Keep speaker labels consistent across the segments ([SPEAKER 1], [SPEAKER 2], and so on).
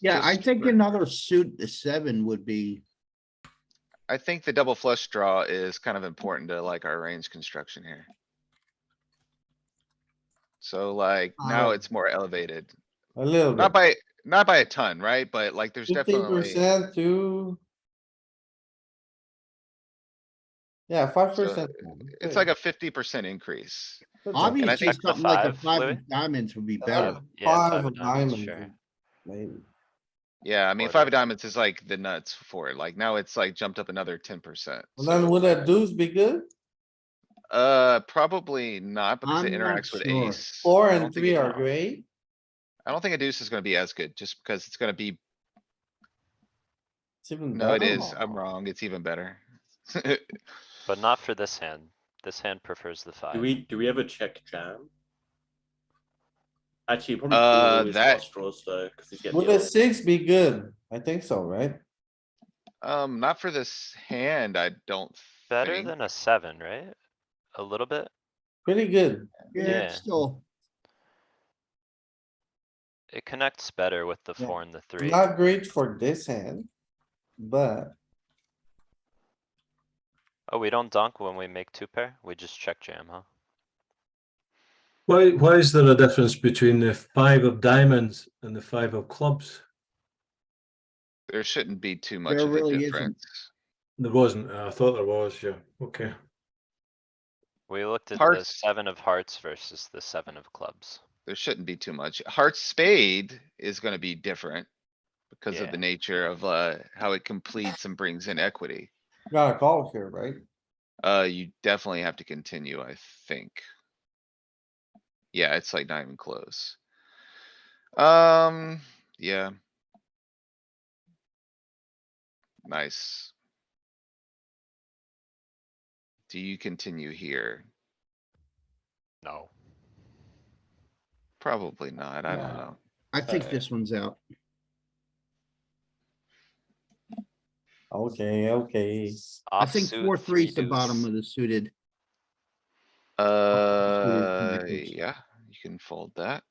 [SPEAKER 1] Yeah, I
[SPEAKER 2] Just
[SPEAKER 1] think
[SPEAKER 2] for-
[SPEAKER 1] another suit, the seven would be,
[SPEAKER 3] I think the double flush draw is kind of important to like our range construction here. So like now
[SPEAKER 4] Uh,
[SPEAKER 3] it's more elevated,
[SPEAKER 4] A little
[SPEAKER 3] not
[SPEAKER 4] bit,
[SPEAKER 3] by, not by a ton, right? But like there's
[SPEAKER 4] fifteen
[SPEAKER 3] definitely,
[SPEAKER 4] percent to. Yeah, five
[SPEAKER 3] So, uh,
[SPEAKER 4] percent.
[SPEAKER 3] it's like a fifty percent increase. I
[SPEAKER 1] obviously
[SPEAKER 3] think
[SPEAKER 5] the
[SPEAKER 1] something like a
[SPEAKER 5] five,
[SPEAKER 1] five
[SPEAKER 5] Louis? Uh,
[SPEAKER 1] of diamonds would be
[SPEAKER 4] Yeah,
[SPEAKER 1] better.
[SPEAKER 4] Five
[SPEAKER 5] five
[SPEAKER 4] of
[SPEAKER 5] of diamonds,
[SPEAKER 4] diamonds,
[SPEAKER 5] sure.
[SPEAKER 4] maybe.
[SPEAKER 3] Yeah, I mean,
[SPEAKER 5] Or
[SPEAKER 3] five
[SPEAKER 5] the-
[SPEAKER 3] of diamonds is like the nuts for it. Like now it's like jumped up another ten percent.
[SPEAKER 4] And Then would a deuce be good?
[SPEAKER 3] Uh, probably not because it
[SPEAKER 1] I'm not
[SPEAKER 3] interacts with
[SPEAKER 1] sure.
[SPEAKER 3] ace.
[SPEAKER 4] Four
[SPEAKER 3] I don't
[SPEAKER 4] and
[SPEAKER 3] think
[SPEAKER 4] three
[SPEAKER 3] it-
[SPEAKER 4] are great.
[SPEAKER 3] I don't think a deuce is gonna be as good just because it's gonna be,
[SPEAKER 4] It's even
[SPEAKER 3] no, it
[SPEAKER 4] better.
[SPEAKER 3] is. I'm wrong. It's even better.
[SPEAKER 5] But not for this hand. This hand prefers the
[SPEAKER 2] Do
[SPEAKER 5] five.
[SPEAKER 2] we, do we ever check jam? Actually, probably. call
[SPEAKER 3] Uh,
[SPEAKER 2] all his
[SPEAKER 3] that-
[SPEAKER 2] fast Draws though, cuz he's getting.
[SPEAKER 4] Would
[SPEAKER 2] the
[SPEAKER 4] a
[SPEAKER 2] odds.
[SPEAKER 4] six be good? I think so, right?
[SPEAKER 3] Um, not for this hand, I don't
[SPEAKER 5] Better
[SPEAKER 3] think.
[SPEAKER 5] than a seven, right? A little bit?
[SPEAKER 4] Pretty good.
[SPEAKER 1] Yeah, it's
[SPEAKER 5] Yeah.
[SPEAKER 1] still,
[SPEAKER 5] It connects better with the
[SPEAKER 4] Yeah.
[SPEAKER 5] four and the three.
[SPEAKER 4] Not great for this hand, but
[SPEAKER 5] Oh, we don't dunk when we make two pair? We just check jam, huh?
[SPEAKER 6] Why, why is there a difference between the five of diamonds and the five of clubs?
[SPEAKER 3] There shouldn't be too much
[SPEAKER 1] There
[SPEAKER 3] of a
[SPEAKER 1] really isn't.
[SPEAKER 3] difference.
[SPEAKER 6] There wasn't. I thought there was, yeah. Okay.
[SPEAKER 5] We looked at the
[SPEAKER 3] Hearts.
[SPEAKER 5] seven of hearts versus the seven of clubs.
[SPEAKER 3] There shouldn't be too much. Heart spade is gonna be different. Because of
[SPEAKER 5] Yeah.
[SPEAKER 3] the nature of, uh, how it completes and brings in equity.
[SPEAKER 4] got a call here, right?
[SPEAKER 3] Uh, you definitely have to continue, I think. Yeah, it's like not even close. Um, yeah. Nice. Do you continue here?
[SPEAKER 5] No.
[SPEAKER 3] Probably not, I don't
[SPEAKER 4] No.
[SPEAKER 3] know.
[SPEAKER 1] I think
[SPEAKER 3] Uh,
[SPEAKER 1] this one's out.
[SPEAKER 4] Okay, okay.
[SPEAKER 1] I think
[SPEAKER 5] Offsuit,
[SPEAKER 1] four, three's the
[SPEAKER 5] deuce.
[SPEAKER 1] bottom of the suited.
[SPEAKER 3] Uh,
[SPEAKER 1] connections.
[SPEAKER 3] yeah, you can fold that.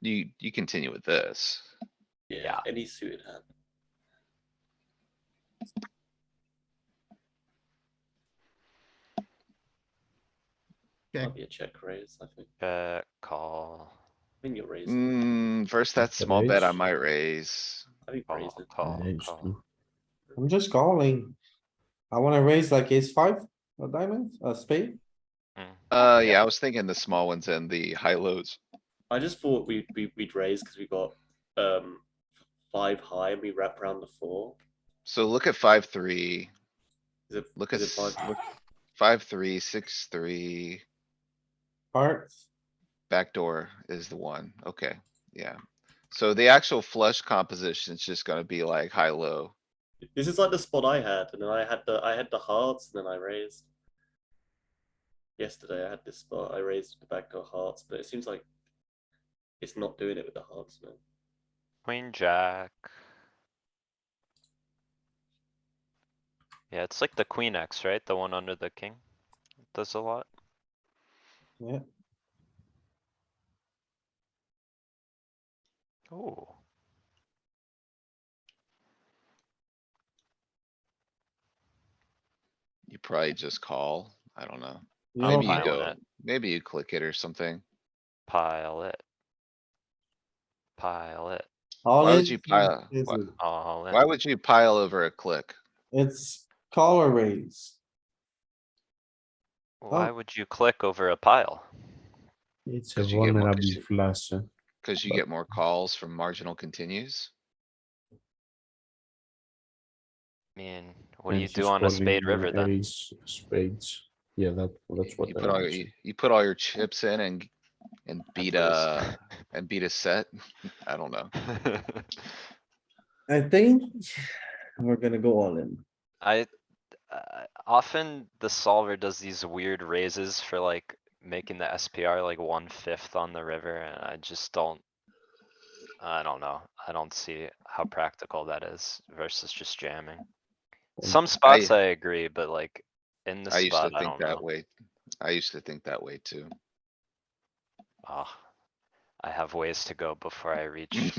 [SPEAKER 3] You, you continue with this.
[SPEAKER 2] Yeah, any suited hand.
[SPEAKER 1] Okay.
[SPEAKER 2] Might be a check raise, I think.
[SPEAKER 5] Check, call,
[SPEAKER 2] I think you're raising.
[SPEAKER 3] Mm, first that
[SPEAKER 6] That's a
[SPEAKER 3] small bet I
[SPEAKER 6] raise.
[SPEAKER 3] might raise.
[SPEAKER 2] I think
[SPEAKER 5] call,
[SPEAKER 2] raising.
[SPEAKER 5] call, call.
[SPEAKER 4] I'm just calling. I wanna raise like ace five, a diamond, a spade.
[SPEAKER 5] Mm.
[SPEAKER 3] Uh,
[SPEAKER 5] Yeah.
[SPEAKER 3] yeah, I was thinking the small ones and the high lows.
[SPEAKER 2] I just thought we, we, we'd raise because we got, um, five high and we wrap around the four.
[SPEAKER 3] So look at five, three,
[SPEAKER 2] Is it,
[SPEAKER 3] look at
[SPEAKER 2] is it
[SPEAKER 3] five,
[SPEAKER 2] five?
[SPEAKER 3] five, three, six, three,
[SPEAKER 4] Hearts,
[SPEAKER 3] backdoor is the one. Okay, yeah. So the actual flush composition is just gonna be like high, low.
[SPEAKER 2] This is like the spot I had, and then I had the, I had the hearts, and then I raised. Yesterday I had this spot, I raised the backdoor hearts, but it seems like it's not doing it with the hearts, man.
[SPEAKER 5] Queen, jack. Yeah, it's like the queen X, right? The one under the king. Does a lot.
[SPEAKER 4] Yeah.
[SPEAKER 5] Ooh,
[SPEAKER 3] You probably just call. I don't know.
[SPEAKER 4] you
[SPEAKER 5] I'm
[SPEAKER 3] Maybe you
[SPEAKER 4] know,
[SPEAKER 5] fine with
[SPEAKER 3] go,
[SPEAKER 5] it.
[SPEAKER 3] maybe you click it or something.
[SPEAKER 5] pile it. Pile it,
[SPEAKER 4] all
[SPEAKER 3] why would
[SPEAKER 4] in,
[SPEAKER 3] you pile-
[SPEAKER 4] is
[SPEAKER 3] why-
[SPEAKER 4] it-
[SPEAKER 5] all in.
[SPEAKER 3] Why would you pile over a click?
[SPEAKER 4] It's call or raise.
[SPEAKER 5] Why
[SPEAKER 4] Oh.
[SPEAKER 5] would you click over a pile?
[SPEAKER 7] It's a
[SPEAKER 3] Because you get more-
[SPEAKER 7] vulnerable flush. uh,
[SPEAKER 3] Cause you get more calls from marginal continues.
[SPEAKER 5] I mean, what do
[SPEAKER 7] and
[SPEAKER 5] you
[SPEAKER 7] she's
[SPEAKER 5] do on a
[SPEAKER 7] calling,
[SPEAKER 5] spade
[SPEAKER 7] uh,
[SPEAKER 5] river then?
[SPEAKER 7] ace, Spades. Yeah, that, that's what.
[SPEAKER 3] You
[SPEAKER 7] I
[SPEAKER 3] put all,
[SPEAKER 7] would
[SPEAKER 3] you,
[SPEAKER 7] say.
[SPEAKER 3] you put all your chips in and, and beat
[SPEAKER 5] lose.
[SPEAKER 3] a, and beat a set. I don't know.
[SPEAKER 4] I think we're gonna go all in.
[SPEAKER 5] I, uh, often the solver does these weird raises for like making the SPR like one fifth on the river and I just don't. I don't know. I don't see how practical that is versus just jamming. Some spots
[SPEAKER 3] Mm, I-
[SPEAKER 5] I agree, but like in the
[SPEAKER 3] I used to
[SPEAKER 5] spot, I
[SPEAKER 3] think
[SPEAKER 5] don't
[SPEAKER 3] that
[SPEAKER 5] know.
[SPEAKER 3] way. I used to think that way too.
[SPEAKER 5] Ah, I have ways to go before I reach